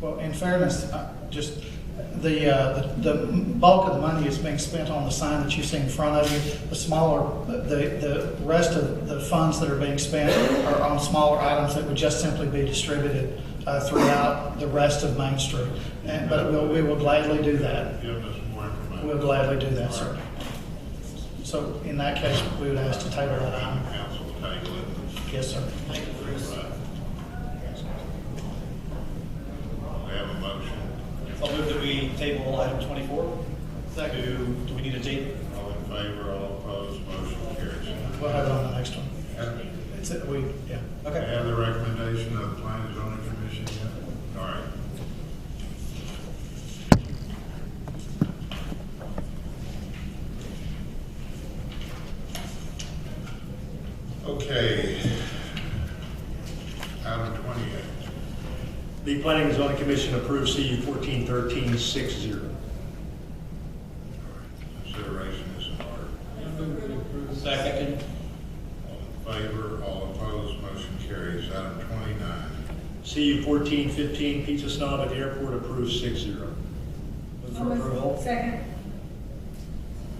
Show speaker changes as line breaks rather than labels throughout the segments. Well, in fairness, I- just the, uh, the the bulk of the money is being spent on the sign that you see in front of you. The smaller, the, the rest of the funds that are being spent are on smaller items that would just simply be distributed uh, throughout the rest of Main Street. And, but we'll- we will gladly do that.
Give us more information.
We'll gladly do that, sir. So in that case, we would ask to table that item.
Council table it.
Yes, sir.
Right. We have a motion.
I'll move that we table item 24. Second. Do we need a date?
All in favor, all opposed, motion carries.
We'll have it on the next one.
Have
It's, we, yeah.
the recommendation of the planning and zoning commission yet? All right. Okay. Item twenty-eight.
The Planning and Zoning Commission approves CU fourteen thirteen six zero.
Consideration is in order.
Second.
All in favor, all opposed, motion carries. Item twenty-nine.
CU fourteen fifteen Pizza Snob at the Airport approves six zero.
Move for
Almost
approval.
Second.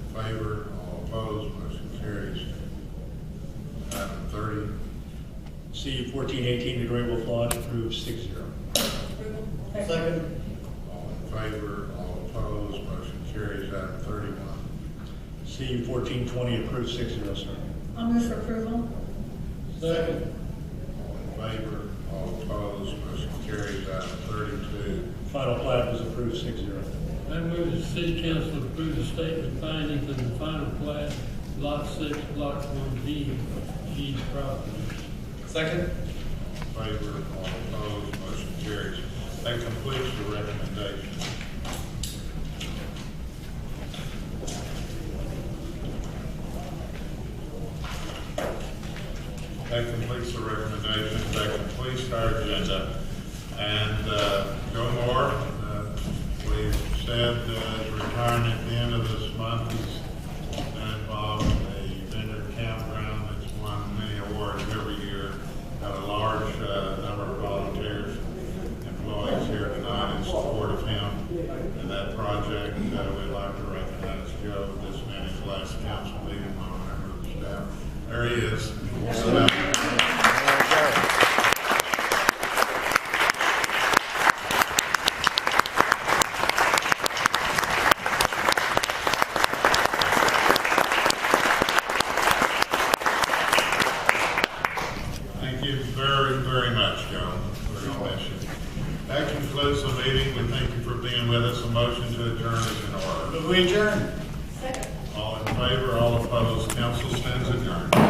In favor, all opposed, motion carries. Item thirty.
CU fourteen eighteen The Great Wolf Lodge approves six zero.
Approval.
Second.
All in favor, all opposed, motion carries. Item thirty-one.
CU fourteen twenty approves six zero, sir.
I'll move for approval.
Second.
All in favor, all opposed, motion carries. Item thirty-two.
Final plat was approved six zero.
I move the city council approve the statement findings in the final plat, lot six, block one D, G property.
Second.
In favor, all opposed, motion carries. That completes the recommendation. That completes the recommendation, that completes our agenda. And uh, Joe Moore, uh, we've said uh, is retiring at the end of this month. He's been involved in a vendor campground that's won many awards every year. Got a large uh, number of volunteers, employees here tonight in support of him and that project. Uh, We'd like to recognize Joe, this man is last council meeting, I remember the staff. There he is. Sit down. Thank you very, very much, Joe, for your mission. That concludes the meeting. We thank you for being with us. A motion to adjourn is in order.
Move we adjourn.
Second.
All in favor, all opposed, council stands adjourned.